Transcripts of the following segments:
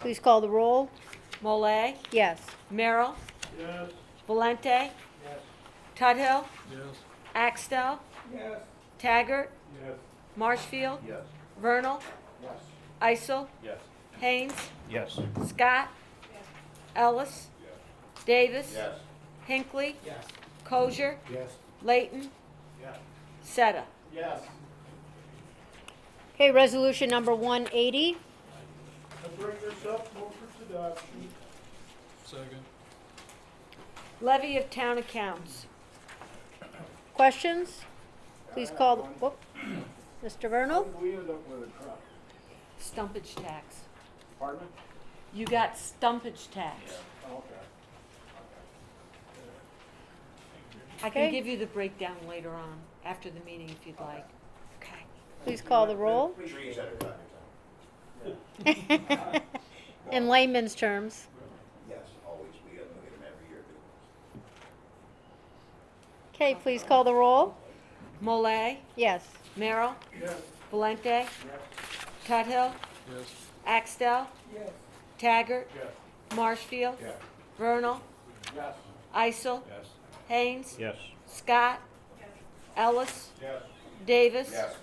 Please call the roll. Mole, Yes. Merrill, Yes. Valente, Yes. Tuthill, Yes. Axtell, Yes. Taggart, Yes. Marshfield, Yes. Vernal, Yes. Isel, Yes. Haynes, Yes. Scott, Ellis, Davis, Yes. Hinckley, Yes. Kosher, Yes. Layton, Yes. Seta. Yes. Okay, resolution number 180. I bring this up, move for adoption. Second. Levy of town accounts. Questions? Please I have call, the one. whoop. Mr. Vernal? We end up with a truck. Stumpage tax. Pardon? You got stumpage tax. Oh, Okay. I Okay. can give you the breakdown later on, after the meeting if you'd like. Okay. Please call the roll. Trees at a time, In layman's terms. yes, always, we get we get them every year. Okay, please call the roll. Mole, Yes. Merrill, Yes. Valente, Yes. Tuthill, Yes. Axtell, Yes. Taggart, Yes. Marshfield, Yeah. Vernal, Yes. Isel, Yes. Haynes, Yes. Scott, Ellis, Yes. Davis, Yes.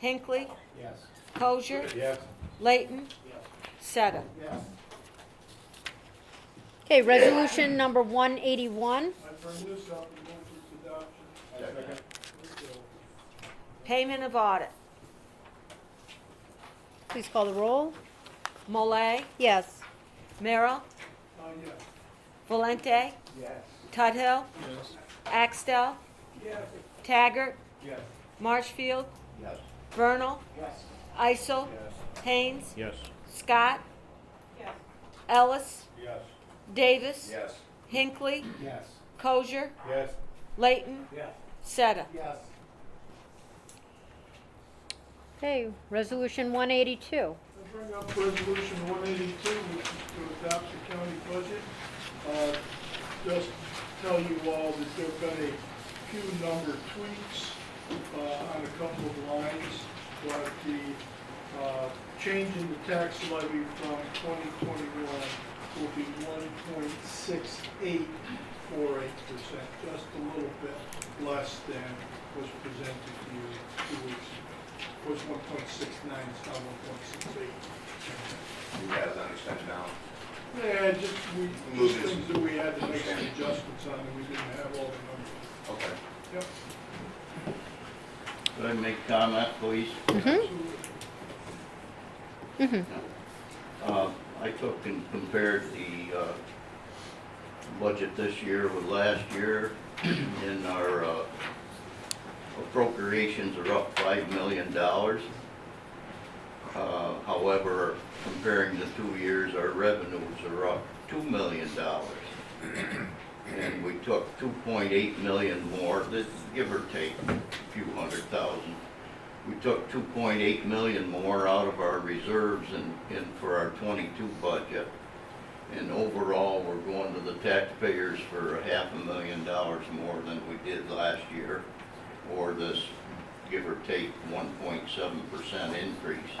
Hinckley, Yes. Kosher, Yes. Layton, Yes. Seta. Yes. Okay, resolution number 181. I bring this up and move for adoption. Second. Payment of audit. Please call the roll. Mole, Yes. Merrill, Uh, yes. Valente, Yes. Tuthill, Yes. Axtell, Yes. Taggart, Yes. Marshfield, Yes. Vernal, Yes. Isel, Yes. Haynes, Yes. Scott, Ellis, Yes. Davis, Yes. Hinckley, Yes. Kosher, Yes. Layton, Yes. Seta. Yes. Okay, resolution 182. I bring up resolution one eighty-two, which is to adopt the county budget. Uh, Just tell you all that there've been a few number tweaks uh, on a couple of lines, but the uh, change in the tax levy from twenty twenty-one will be one point six eight four eight percent, just a little bit less than was presented to you two weeks ago was one point six nine, it's now one point six eight. You guys understand now? Yeah, just, we, just Moving. things that we had to make some adjustments on, and we didn't have all the numbers. Okay. Yep. Could I make comment, please? Uh, I took and compared the uh, budget this year with last year, and our uh, appropriations are up $5 million. Uh, However, comparing the two years, our revenues are up $2 million. And we took 2.8 million more, this- give or take a few hundred thousand we took two point eight million more out of our reserves in, in, for our twenty-two budget. And overall, we're going to the taxpayers for a half a million dollars more than we did last year, or this, give or take, one point seven percent increase.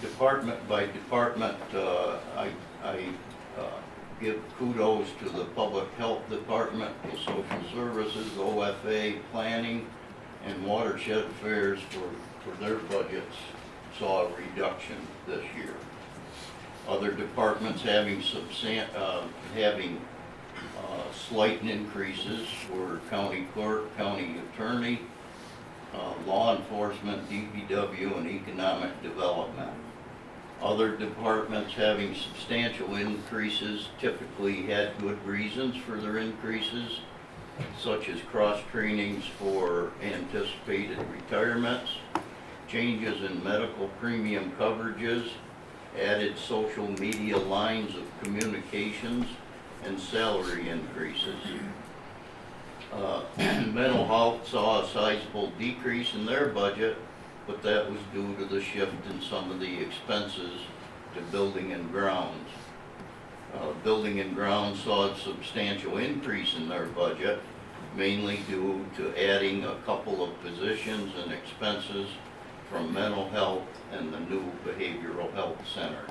Department by department, uh, I, I, uh, give kudos to the Public Health Department, the Social Services, OFA, Planning, and watershed affairs for, for their budgets saw a reduction this year. Other departments having substan, uh, having, uh, slight increases were county clerk, county attorney, uh, law enforcement, DPW, and economic development. Other departments having substantial increases typically had good reasons for their increases such as cross-trainings for anticipated retirements, changes in medical premium coverages, added social media lines of communications, and salary increases. Uh, Mental health saw a sizable decrease in their budget, but that was due to the shift in some of the expenses to building and grounds. Uh, Building and grounds saw a substantial increase in their budget, mainly due to adding a couple of positions and expenses from mental health and the new behavioral health center.